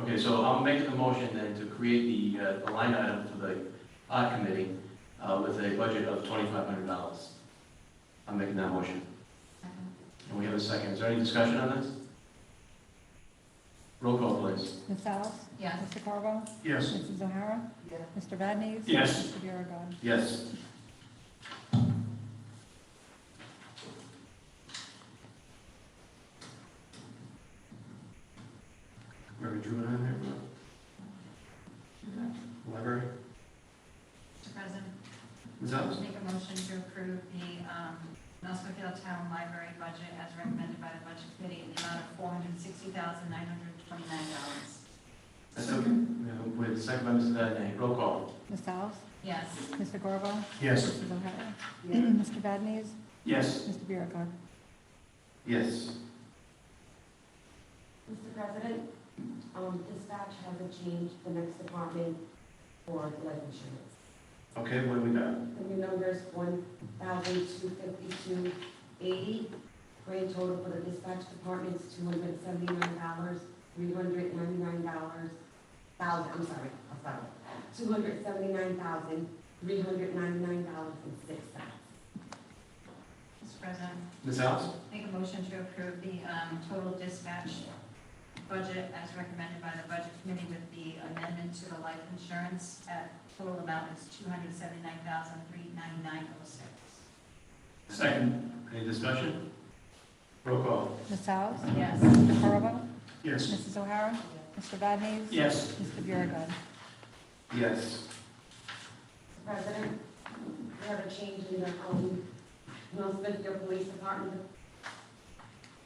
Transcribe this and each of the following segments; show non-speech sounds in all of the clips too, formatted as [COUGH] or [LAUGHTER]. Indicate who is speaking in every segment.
Speaker 1: Okay, so I'll make the motion then to create the, uh, the line item for the art committee, uh, with a budget of twenty-five hundred dollars. I'm making that motion. And we have a second. Is there any discussion on this? Roll call, please.
Speaker 2: Ms. Alves?
Speaker 3: Yes.
Speaker 2: Mr. Carvo?
Speaker 1: Yes.
Speaker 2: Mrs. O'Hara?
Speaker 3: Yes.
Speaker 2: Mr. Vadnez,
Speaker 1: Yes.
Speaker 2: Mr. Biragad.
Speaker 1: Yes. Where we drew it on there? Library?
Speaker 3: Mr. President,
Speaker 1: Ms.
Speaker 3: I'll
Speaker 1: Alves?
Speaker 3: make a motion to approve the um, Nelsonville Town Library budget as recommended by the Budget Committee in the amount of $460,929.
Speaker 1: I said, we have a uh, second by Mrs. Vadeney, roll call.
Speaker 2: Ms. Alves?
Speaker 3: Yes.
Speaker 2: Mr. Carvo?
Speaker 1: Yes.
Speaker 2: Mrs. O'Hara? [CLEARS THROAT] Mr. Vadnez,
Speaker 1: Yes.
Speaker 2: Mr. Biragad.
Speaker 1: Yes.
Speaker 4: Mr. President, um, dispatch hasn't changed the next department for life insurance.
Speaker 1: Okay, what do we got?
Speaker 4: The new number is one thousand two fifty-two eighty. Grand total for the dispatch department is two hundred seventy-nine dollars, three hundred ninety-nine dollars, thousand, I'm sorry, I'm sorry. Two hundred seventy-nine thousand, three hundred ninety-nine dollars and six cents.
Speaker 3: Mr. President,
Speaker 1: Ms. Alves?
Speaker 3: make a motion to approve the um, total dispatch budget as recommended by the Budget Committee with the amendment to the life insurance at total amount is $279,399.06.
Speaker 1: Second. Any discussion? Roll call.
Speaker 2: Ms. Alves?
Speaker 3: Yes.
Speaker 2: Mr. Carvo?
Speaker 1: Yes.
Speaker 2: Mrs. O'Hara? Mr. Vadnez,
Speaker 1: Yes.
Speaker 2: Mr. Biragad.
Speaker 1: Yes.
Speaker 4: Mr. President, we have a change in the, um, Northfield Police Department.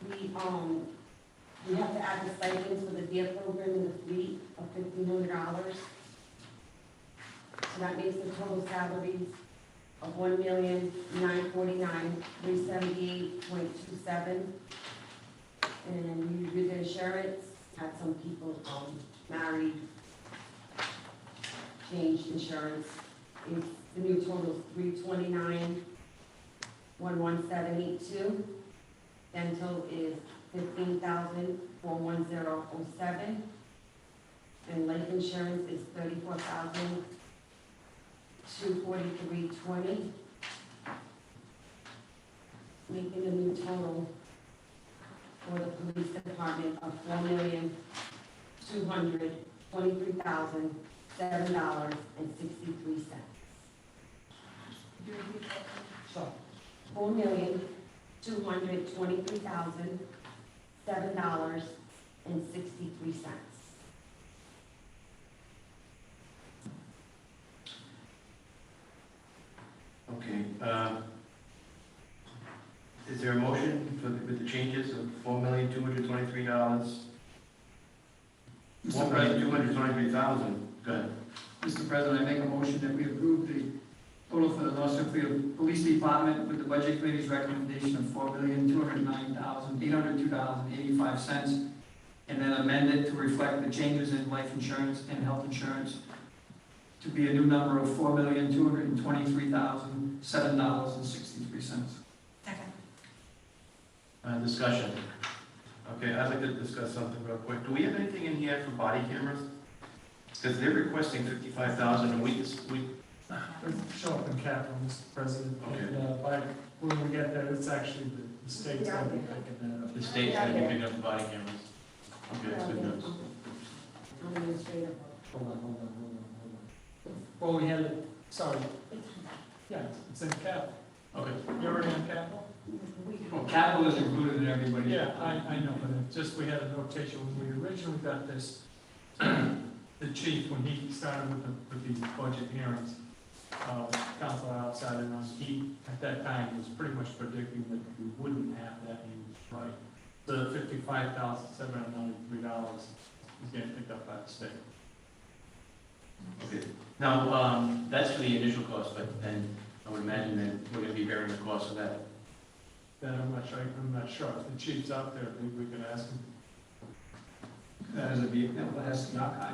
Speaker 4: We, um, we have to add the stipends for the vehicle program in the fleet of fifteen hundred dollars. So that makes the total salaries of one million, nine forty-nine, three seventy-eight point two seven. And you do the insurance, had some people, um, married, changed insurance. It's, the new total is three twenty-nine, one one seven eight two. Dental is fifteen thousand, four one zero oh seven. And life insurance is thirty-four thousand, two forty-three twenty. Making a new total for the police department of four million, two hundred, twenty-three thousand, seven dollars and sixty-three cents. So, four million, two hundred twenty-three thousand, seven dollars and sixty-three cents.
Speaker 1: Okay, uh, is there a motion for, with the changes of four million, two hundred twenty-three dollars? Four million, two hundred twenty-three thousand, go ahead.
Speaker 5: Mr. President, I make a motion that we approve the total for the North Smithfield Police Department with the Budget Committee's recommendation of four million, two hundred nine thousand, eight hundred two dollars and eighty-five cents, and then amend it to reflect the changes in life insurance and health insurance to be a new number of four million, two hundred and twenty-three thousand, seven dollars and sixty-three cents.
Speaker 3: Second.
Speaker 1: Uh, discussion. Okay, I'd like to discuss something real quick. Do we have anything in here for body cameras? Because they're requesting fifty-five thousand and we, just- we,
Speaker 6: It'll Show up in capital, Mr. President,
Speaker 1: Okay.
Speaker 6: and, uh, by, when we get there, it's actually the- the state's gonna be picking that up.
Speaker 1: the state's gonna be picking up the body cameras. Okay, that's good news.
Speaker 4: Administrative.
Speaker 6: Hold on, hold on, hold on, hold on. Well, we had it, sorry, yeah, it's in capital,
Speaker 1: Okay.
Speaker 6: you already in capital?
Speaker 5: Well, capital is included in everybody.
Speaker 6: Yeah, I, I know, but it just, we had a notation when we originally got this, the chief, when he started with the, with the budget hearings, uh, council outside and us, he, at that time, was pretty much predicting that we wouldn't have that, he was right. The fifty-five thousand, seven hundred ninety-three dollars is getting picked up by the state.
Speaker 1: Okay. Now, um, that's for the initial cost, but then I would imagine that we're gonna be bearing the cost of that.
Speaker 6: Then I'm not sure, I'm not sure, if the chief's out there, maybe we can ask him.
Speaker 5: That is a, that has, not,